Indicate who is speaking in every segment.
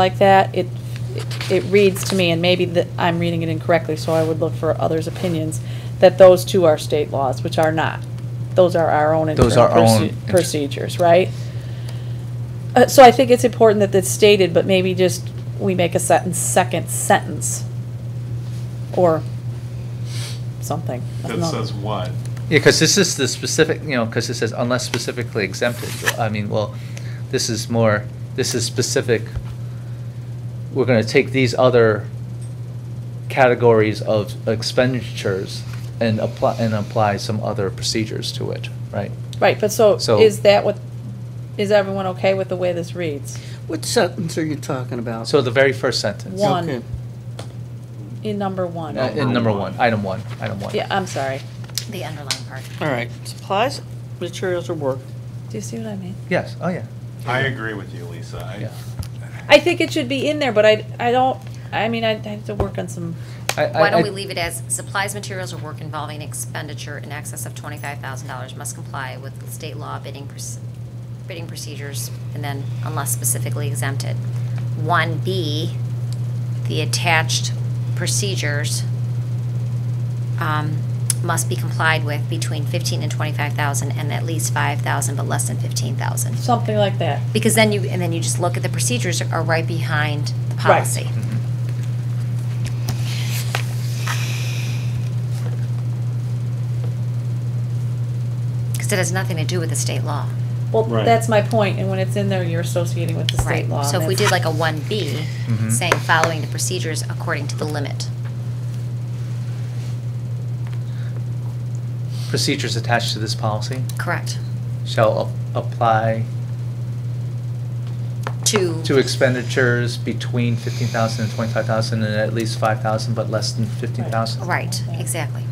Speaker 1: like that, it, it reads to me, and maybe that I'm reading it incorrectly, so I would look for others' opinions, that those two are state laws, which are not. Those are our own internal
Speaker 2: Those are our own
Speaker 1: proce-
Speaker 2: inter-
Speaker 1: procedures, right? Uh, so I think it's important that it's stated, but maybe just, we make a sentence, second sentence, or something. I don't
Speaker 3: That
Speaker 1: know.
Speaker 3: says what?
Speaker 2: Yeah, because this is the specific, you know, because it says unless specifically exempted. I mean, well, this is more, this is specific. We're going to take these other categories of expenditures and apply, and apply some other procedures to it, right?
Speaker 1: Right, but so,
Speaker 2: So-
Speaker 1: is that what, is everyone okay with the way this reads?
Speaker 4: What sentence are you talking about?
Speaker 2: So the very first sentence.
Speaker 1: One.
Speaker 4: Okay.
Speaker 1: In number
Speaker 2: Uh,
Speaker 1: one?
Speaker 2: In number one, item one, item one.
Speaker 1: Yeah, I'm sorry.
Speaker 5: The underlying part.
Speaker 4: All right, supplies, materials, or work.
Speaker 1: Do you see what I mean?
Speaker 2: Yes, oh, yeah.
Speaker 3: I agree with you, Lisa. I-
Speaker 2: Yeah.
Speaker 1: I think it should be in there, but I, I don't, I mean, I have to work on some,
Speaker 2: I- I-
Speaker 5: Why don't
Speaker 2: I-
Speaker 5: we leave it as supplies, materials, or work involving expenditure in excess of twenty-five thousand dollars must comply with state law bidding, proce- bidding procedures, and then unless specifically exempted. One B, the attached procedures um, must be complied with between fifteen and twenty-five thousand and at least five thousand, but less than fifteen thousand.
Speaker 1: something like that.
Speaker 5: Because then you, and then you just look at the procedures are right behind the
Speaker 1: Right.
Speaker 5: policy.
Speaker 4: Mm-hmm.
Speaker 2: Mhm.
Speaker 5: Because it has nothing to do with the state law.
Speaker 1: Well,
Speaker 3: Right.
Speaker 1: that's my point, and when it's in there, you're associating with the state
Speaker 5: Right.
Speaker 1: law.
Speaker 5: So if we did like a one B,
Speaker 2: Mhm.
Speaker 5: saying following the procedures according to the limit.
Speaker 2: Procedures attached to this policy
Speaker 5: Correct.
Speaker 2: shall a- apply
Speaker 5: To.
Speaker 2: to expenditures between 15,000 and 25,000 and at least 5,000, but less than 15,000?
Speaker 5: Right, exactly.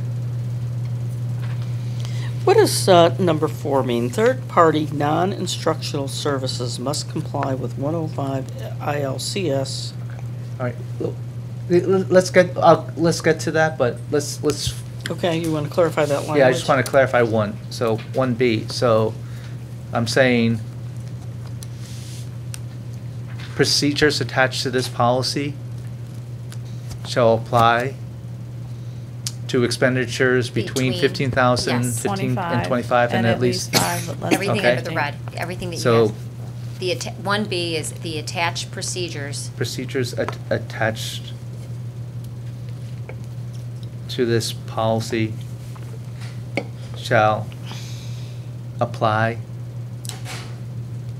Speaker 4: What does uh, number four mean? Third-party non-instructional services must comply with 105 ILCS.
Speaker 2: All right, l- l- let's get, I'll- let's get to that, but let's, let's,
Speaker 4: Okay, you want to clarify that language?
Speaker 2: yeah, I just want to clarify one, so 1B, so I'm saying procedures attached to this policy shall apply to expenditures between
Speaker 5: Between-
Speaker 2: 15,000,
Speaker 5: yes.
Speaker 2: 15, and 25, and at least
Speaker 1: five, but less than
Speaker 5: Everything
Speaker 2: Okay.
Speaker 5: under the red, everything that you
Speaker 2: So-
Speaker 5: have. The, atta- one B is the attached procedures.
Speaker 2: procedures at- attached to this policy shall apply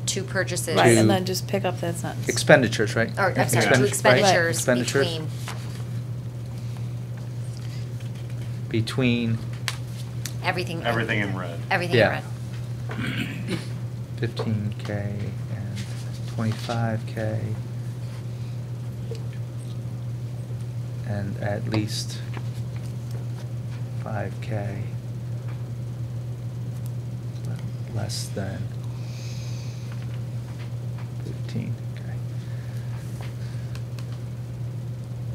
Speaker 5: to purchases.
Speaker 1: Right,
Speaker 2: to-
Speaker 1: and then just pick up that sentence.
Speaker 2: expenditures, right?
Speaker 5: Or, I'm sorry,
Speaker 2: Expendi-
Speaker 5: to
Speaker 2: right?
Speaker 5: expenditures
Speaker 2: Expenditures
Speaker 5: between
Speaker 2: Between
Speaker 5: everything.
Speaker 3: Everything in red.
Speaker 5: Everything in
Speaker 2: Yeah.
Speaker 5: red.
Speaker 2: fifteen K and twenty-five K and at least five K less than fifteen K.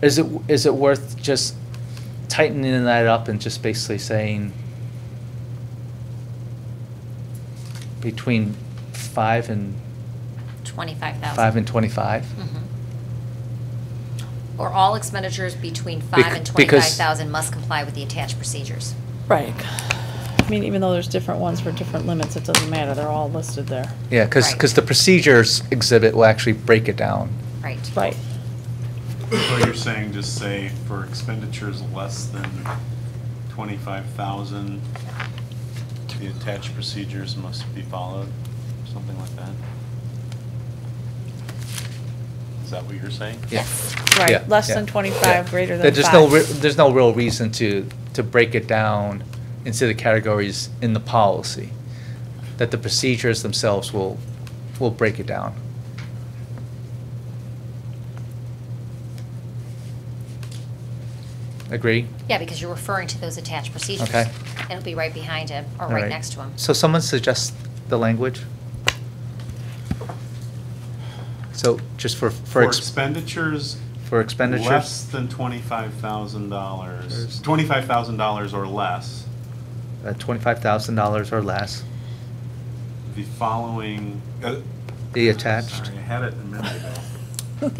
Speaker 2: Is it, is it worth just tightening that up and just basically saying between five and,
Speaker 5: Twenty-five thousand.
Speaker 2: five and twenty-five?
Speaker 5: Mhm. Or all expenditures between
Speaker 2: Mm-hmm. Bec-
Speaker 5: five and twenty-five
Speaker 2: because-
Speaker 5: thousand must comply with the attached procedures.
Speaker 1: Right. I mean, even though there's different ones for different limits, it doesn't matter, they're all listed there.
Speaker 2: Yeah, because,
Speaker 5: Right.
Speaker 2: the procedures exhibit will actually break it down.
Speaker 5: Right.
Speaker 1: Right,
Speaker 3: So you're saying just say for expenditures less than twenty-five thousand, the attached procedures must be followed, something like that? Is that what you're saying?
Speaker 2: Yeah.
Speaker 5: Yes.
Speaker 2: Yeah,
Speaker 1: right, less
Speaker 2: yeah,
Speaker 1: than
Speaker 2: yeah.
Speaker 1: twenty-five, greater
Speaker 2: There-
Speaker 1: than
Speaker 2: There's no, re-
Speaker 1: five.
Speaker 2: there's no real reason to, to break it down into the categories in the policy, that the procedures themselves will, will break it down. Agree?
Speaker 5: Yeah, because you're referring to those attached procedures.
Speaker 2: Okay.
Speaker 5: It'll be right behind him, or
Speaker 2: All
Speaker 5: right next to him.
Speaker 2: So someone suggests the language? So just for, for.
Speaker 3: For
Speaker 2: ex-
Speaker 3: expenditures.
Speaker 2: For expenditures?
Speaker 3: Less than twenty-five thousand dollars, twenty-five thousand dollars or less,
Speaker 2: at $25,000 or less,
Speaker 3: the following, uh,
Speaker 2: the attached.
Speaker 3: Sorry, I had it a minute ago.